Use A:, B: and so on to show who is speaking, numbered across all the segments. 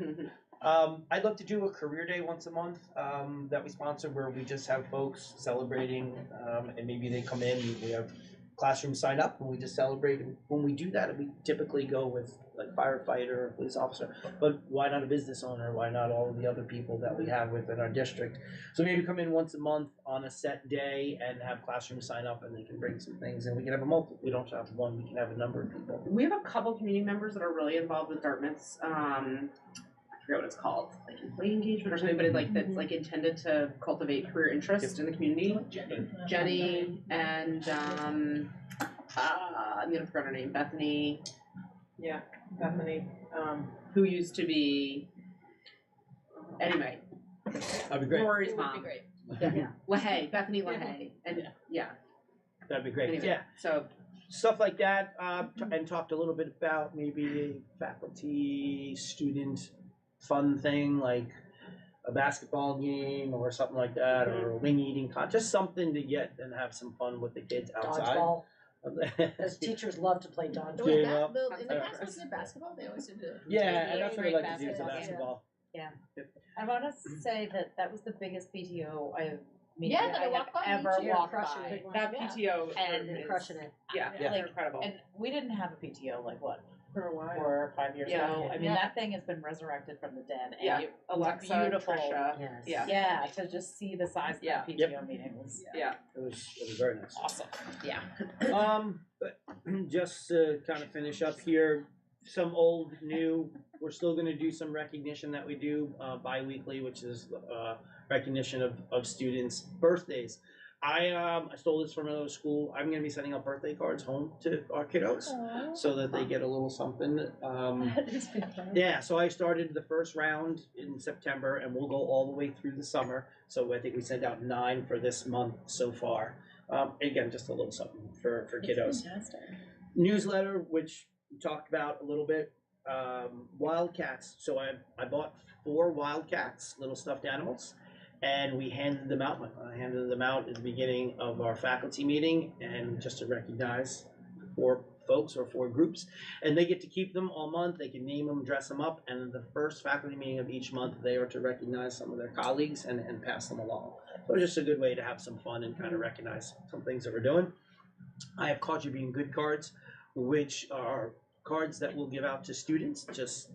A: Um, I'd love to do a career day once a month um, that we sponsor where we just have folks celebrating um, and maybe they come in and we have classrooms sign up and we just celebrate. And when we do that, we typically go with like firefighter or police officer, but why not a business owner? Why not all of the other people that we have within our district? So maybe come in once a month on a set day and have classrooms sign up and they can bring some things and we can have a multi, we don't have one, we can have a number of people.
B: We have a couple community members that are really involved with Dartmouth's, um, I forget what it's called, like employee engagement or something, but it like, that's like intended to cultivate career interest in the community. Jenny and, um, uh, I'm gonna forget her name, Bethany,
C: Yeah, Bethany, um,
B: who used to be, anyway,
A: That'd be great.
B: Rory's
C: it would be
B: mom.
C: great.
B: Yeah, LaHaye, Bethany
C: Yeah.
B: LaHaye, and, yeah,
A: That'd be great.
B: Anyway.
A: Yeah,
B: so,
A: stuff like that, uh, t-
C: Mm-hmm.
A: and talked a little bit about maybe a faculty student fun thing like a basketball game or something like that, or
C: Mm-hmm.
A: a wing eating contest, something to get and have some fun with the kids outside.
D: Dodgeball, because teachers love to play
C: The
D: dodgeball.
C: way
A: Gave
C: ba-
A: up.
C: the- in the
A: Okay.
C: past, wasn't it basketball? They always did it.
A: yeah, and that's what I
C: Great
A: like to do for
C: basketball game.
A: basketball.
E: I want to say that that was the biggest PTO I meeting
C: Yeah,
E: that
C: that
E: I
C: I
E: have
C: walked by
E: ever
C: each year,
E: walked
D: crushing
E: by.
D: it.
E: That
C: Yeah.
E: PTO
D: And they're
E: is-
D: crushing it.
E: Yeah,
C: Yeah.
E: like
B: incredible.
E: and we didn't have a PTO like what
C: For a while.
E: four or five years
B: Yeah.
E: ago. I mean
C: Yeah.
E: that thing has been resurrected from the dead. And
B: Yeah.
E: you,
B: Alexa,
E: beautiful.
B: Trisha,
D: Yes.
B: Yeah.
E: yeah, to just see the size of
B: Yeah.
E: that PTO meeting was
B: yeah,
A: It was it was very nice.
E: awesome.
A: Um, but just to kind of finish up here, some old, new, we're still gonna do some recognition that we do, uh, bi-weekly, which is, uh, recognition of, of students' birthdays. I, um, I stole this from another school, I'm gonna be sending out birthday cards home to our kiddos, so that they get a little something, um. Yeah, so I started the first round in September, and we'll go all the way through the summer. So I think we sent out nine for this month so far. Um, again, just a little something for for kiddos.
C: Fantastic.
A: Newsletter, which we talked about a little bit. Um, wildcats. So I I bought four wildcats, little stuffed animals, and we handed them out. I handed them out at the beginning of our faculty meeting, and just to recognize four folks or four groups and they get to keep them all month. They can name them, dress them up, and the first faculty meeting of each month, they are to recognize some of their colleagues and, and pass them along. So it's just a good way to have some fun and kind of recognize some things that we're doing. I have caught you being good cards, which are cards that we'll give out to students, just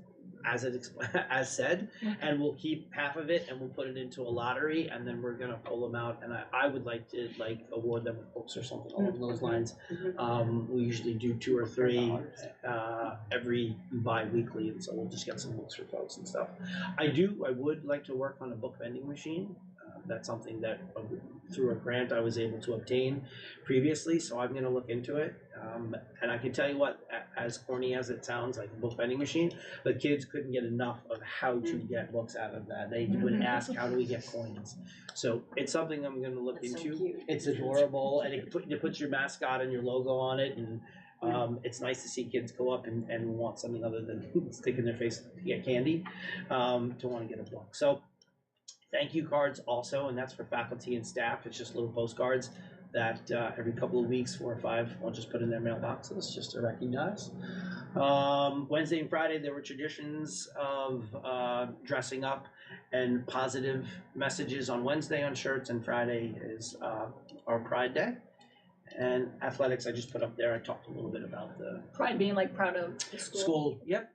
A: as it exp- as said, and we'll keep half of it and we'll put it into a lottery, and then we're gonna pull them out. And I, I would like to like award them with books or something along those lines.
B: Mhm.
A: Um, we usually do two or three uh, every bi-weekly, and so we'll just get some books for folks and stuff. I do, I would like to work on a book vending machine. Uh, That's something that uh, through a grant I was able to obtain previously, so I'm gonna look into it. Um, and I can tell you what, a- as corny as it sounds, like a book vending machine, the kids couldn't get enough of how to
D: Mm-hmm.
A: get books out of that. They would ask, how do we get coins? So it's something I'm gonna look
D: That's so
A: into.
D: cute.
A: It's adorable, and it, put, it puts your mascot and your logo on it, and um, it's nice to see kids go up and, and want something other than sticking their face to get candy, um, to want to get a book. So, thank you cards also, and that's for faculty and staff. It's just little postcards that uh, every couple of weeks, four or five, I'll just put in their mailboxes just to recognize. Um, Wednesday and Friday, there were traditions of uh, dressing up and positive messages on Wednesday on shirts, and Friday is uh, our Pride Day. And athletics, I just put up there. I talked a little bit about the
C: Pride being like proud of the school.
A: school. Yep.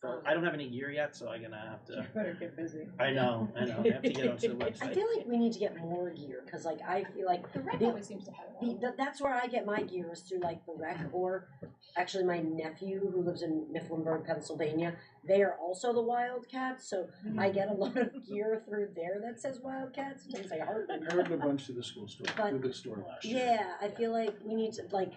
A: So I don't have any gear yet, so I'm gonna have to.
B: better get busy.
A: I know, I know. I have to get onto the
D: I
A: website.
D: feel like we need to get more gear, because like, I feel like,
C: The rec
D: The-
C: always seems to have it.
D: the- th- that's where I get my gear, is through like the rec, or actually my nephew who lives in Mifflinburg, Pennsylvania, they are also the Wildcats, so I get a lot of gear through there that says Wildcats, sometimes I hardly
F: I ordered a bunch to the school store,
D: But-
F: to the store last year.
D: Yeah, I feel like we need to like.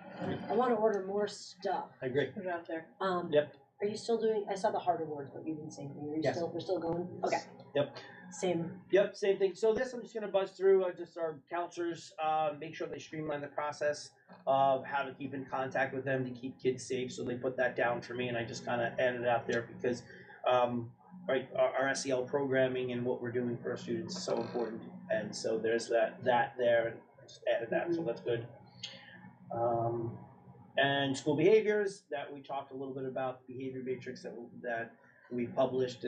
D: I want to order more stuff.
A: I agree.
B: Put it out there.
D: Um,
A: Yep.
D: Are you still doing? I saw the hard awards, but you didn't say anything. Are you
A: Yes.
D: still? We're still going. Okay.
A: Yep.
D: Same.
A: Yep, same thing. So this, I'm just gonna buzz through, uh, just our counselors, uh, make sure they streamline the process of how to keep in contact with them to keep kids safe, so they put that down for me, and I just kinda added it out there because, um, right, our, our SEL programming and what we're doing for our students is so important, and so there's that, that there, and I just added that, so that's good. Um, and school behaviors, that we talked a little bit about, the behavior matrix that, that we published